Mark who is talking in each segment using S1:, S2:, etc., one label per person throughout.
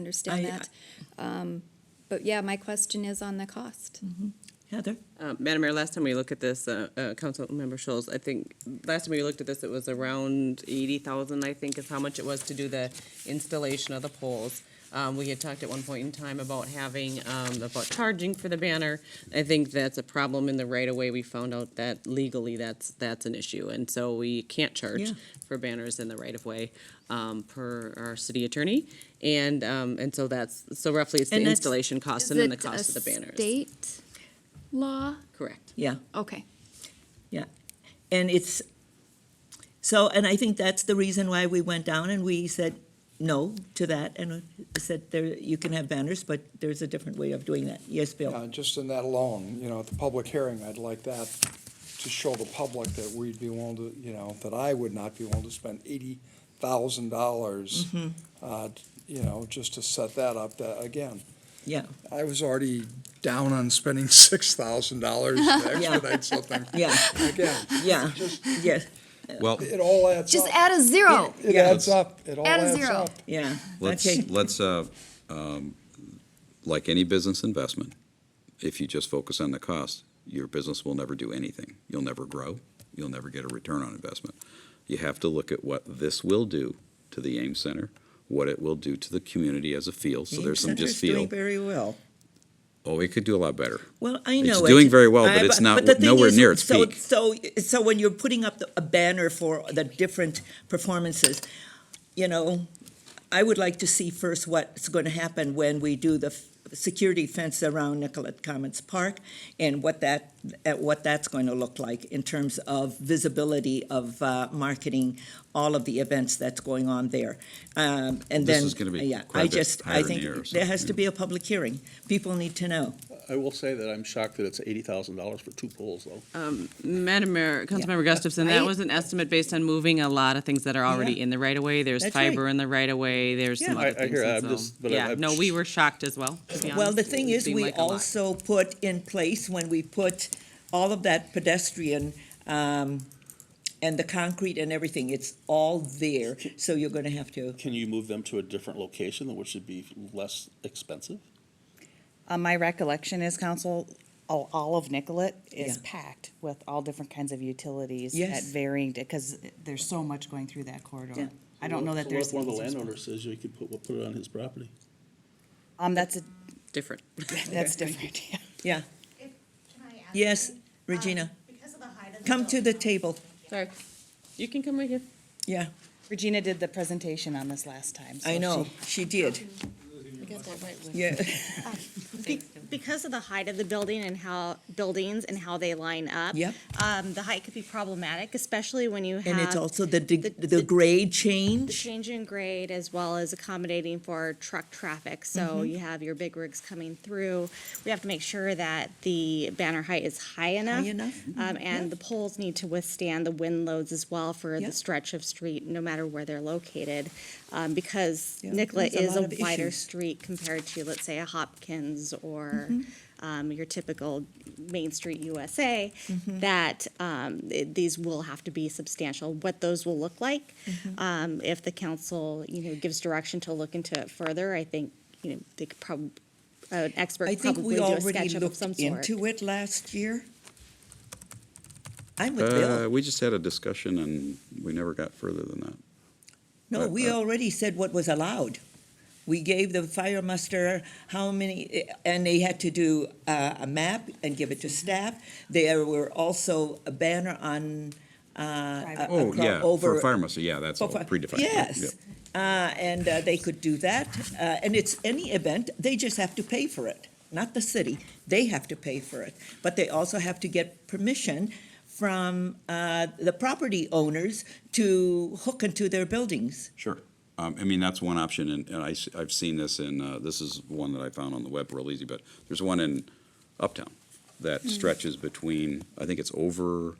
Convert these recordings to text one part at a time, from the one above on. S1: understand
S2: I-
S1: that. Um, But yeah, my question is on the cost.
S2: Heather?
S3: Uh, Madam Mayor, last time we looked at this, uh, uh, Councilmember Schultz, I think, last time we looked at this, it was around eighty thousand, I think, is how much it was to do the installation of the poles. Um, we had talked at one point in time about having, um, about charging for the banner. I think that's a problem in the right of way. We found out that legally, that's, that's an issue, and so we can't
S2: Yeah.
S3: charge for banners in the right of way, um, per our city attorney. And, um, and so that's, so roughly it's the
S2: And that's-
S3: installation cost and then the cost of the banners.
S1: State law?
S3: Correct.
S2: Yeah,
S1: Okay.
S2: yeah. And it's, so, and I think that's the reason why we went down and we said no to that and said there, you can have banners, but there's a different way of doing that. Yes,
S4: Yeah,
S2: Bill?
S4: Uh, just in that alone, you know, at the public hearing, I'd like that to show the public that we'd be willing to, you know, that I would not be willing to spend eighty thousand dollars,
S1: Mm-hmm.
S4: uh, you know, just to set that up, that, again,
S2: Yeah,
S4: I was already down on spending six thousand dollars to
S2: Yeah.
S4: expedite something.
S2: yeah,
S4: Again,
S2: yeah, yes,
S5: Well,
S4: it all adds
S1: Just
S4: up.
S1: add a zero.
S4: It adds up, it all
S1: Add a
S4: adds
S1: zero.
S4: up.
S2: yeah. Okay,
S5: let's, let's, uh, um, like any business investment, if you just focus on the cost, your business will never do anything. You'll never grow. You'll never get a return on investment. You have to look at what this will do to the Ames Center, what it will do to the community as a feel. So there's some just
S2: Center's doing
S5: feel,
S2: very well.
S5: oh, it could do a lot better.
S2: Well, I know
S5: It's
S2: it.
S5: doing very well, but
S2: I-
S5: it's not
S2: the thing
S5: nowhere near its
S2: so,
S5: peak.
S2: So, so when you're putting up the, a banner for the different performances, you know, I would like to see first what's going to happen when we do the f- security fence around Nicollet Commons Park and what that at what that's going to look like in terms of visibility of uh, marketing all of the events that's going on there. Um, and
S5: This
S2: then
S5: is gonna be
S2: yeah,
S5: quite a
S2: I
S5: bit
S2: just I
S5: higher
S2: think
S5: near, so,
S2: there has to
S5: yeah.
S2: be a public hearing. People need to know.
S6: I will say that I'm shocked that it's eighty thousand dollars for two poles, though.
S3: Madam Mayor, Um, Councilmember Gustafson, that
S2: Right.
S3: was an estimate based on moving a lot of things that are already
S2: Yeah.
S3: in the right of way. There's
S2: That's right.
S3: fiber in the right of way, there's some
S2: Yeah.
S3: other
S6: I- I
S3: things.
S6: hear,
S3: and
S6: I'm
S3: so-
S6: just- but I-
S3: Yeah,
S6: I'm
S3: no,
S6: sh-
S3: we were shocked as well, to be
S2: Well,
S3: honest.
S2: the
S3: It
S2: thing is,
S3: seemed
S2: we
S3: like a lot.
S2: also put in place, when we put all of that pedestrian, um, and the concrete and everything, it's all there, so you're gonna have to,
S6: Can you move them to a different location, which would be less expensive?
S7: Uh, my recollection is council, all, all of Nicollet is
S2: Yeah.
S7: packed with all different kinds of utilities
S2: Yes.
S7: at varying, because there's so much going through that
S2: Yeah.
S7: corridor. I don't know that
S6: So
S7: there's.
S6: What if one of
S7: an
S6: the
S7: easy response.
S6: landowners says you could put, we'll put it on his property?
S7: Um, that's a,
S3: Different.
S7: that's different, yeah.
S2: yeah.
S8: Can I ask
S2: Yes,
S8: something?
S2: Regina,
S8: Um, Because of the height of the.
S2: come to the
S8: building,
S2: table,
S3: Sorry, you can come right here.
S2: yeah,
S7: Regina did the presentation on this last time. so
S2: I know,
S7: she-
S2: she did, yeah,
S9: Be- Because of the height of the building and how, buildings and how they line up.
S2: Yep.
S9: Um, the height could be problematic, especially when you have.
S2: and it's also the, de-
S9: Uh, the-
S2: the
S9: the-
S2: grade
S9: The
S2: change,
S9: change in grade as well as accommodating for truck traffic. So
S2: Mm-hmm.
S9: you have your big rigs coming through. We have to make sure that the banner height is high enough.
S2: enough, mm-hmm,
S9: Um, and the poles need to withstand the wind loads as well for
S2: Yeah.
S9: the stretch of street, no matter where they're located. Um, because
S2: Yeah,
S9: Nicollet
S2: there's a
S9: is a
S2: lot of
S9: wider
S2: issues.
S9: street compared to, let's say, a Hopkins or
S2: Mm-hmm.
S9: um, your typical Main Street USA,
S2: Mm-hmm.
S9: that um, it- these will have to be substantial. What those will look like,
S2: Mm-hmm.
S9: um, if the council, you know, gives direction to look into it further, I think, you know, they could probably, an expert
S2: I think
S9: probably
S2: we
S9: do a
S2: already
S9: sketchup of
S2: looked
S9: some sort.
S2: into it last year. I'm with Bill.
S5: Uh, we just had a discussion and we never got further than that.
S2: No,
S5: Uh,
S2: we
S5: uh,
S2: already said what was allowed. We gave the fire muster how many, eh, and they had to do uh, a map and give it to
S5: Mm-hmm.
S2: staff. There were also a banner on, uh,
S7: Private.
S5: Oh,
S2: acro-
S5: yeah, for
S2: over.
S5: fire muster, yeah, that's all
S2: for-
S5: predefined. Yep.
S2: Yes, uh, and uh, they could do that. Uh, And it's any event, they just have to pay for it, not the city. They have to pay for it. But they also have to get permission from uh, the property owners to hook into their buildings.
S5: Sure. Um, I mean, that's one option, and, and I, have seen this in, uh, this is one that I found on the web real easy, but there's one in Uptown that
S2: Hmm.
S5: stretches between, I think it's over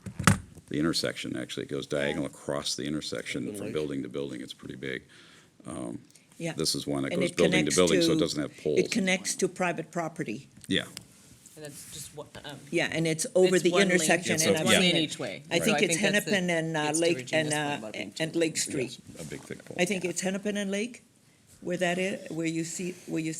S5: the intersection, actually. It goes diagonal across the intersection from building to building. It's pretty big. Um,
S2: Yeah.
S5: This is one that
S2: And
S5: goes
S2: it
S5: building to
S2: connects
S5: building, so
S2: to-
S5: it doesn't have poles.
S2: It connects to private property,
S5: Yeah,
S3: And that's just one, um,
S2: yeah, and it's over
S3: It's
S2: the
S3: one lane.
S2: intersection.
S5: It's
S2: and
S5: a-
S2: I've
S5: one
S2: seen
S3: lane
S2: it.
S3: each way.
S2: I
S3: So
S2: think
S3: I
S2: it's
S3: think that's the-
S2: Hennepin and uh,
S3: it's to
S2: Lake and,
S3: Regina's point
S2: uh,
S3: about being
S2: and Lake Street.
S5: a big thick pole.
S2: I think it's Hennepin and Lake where that is, where you see, where you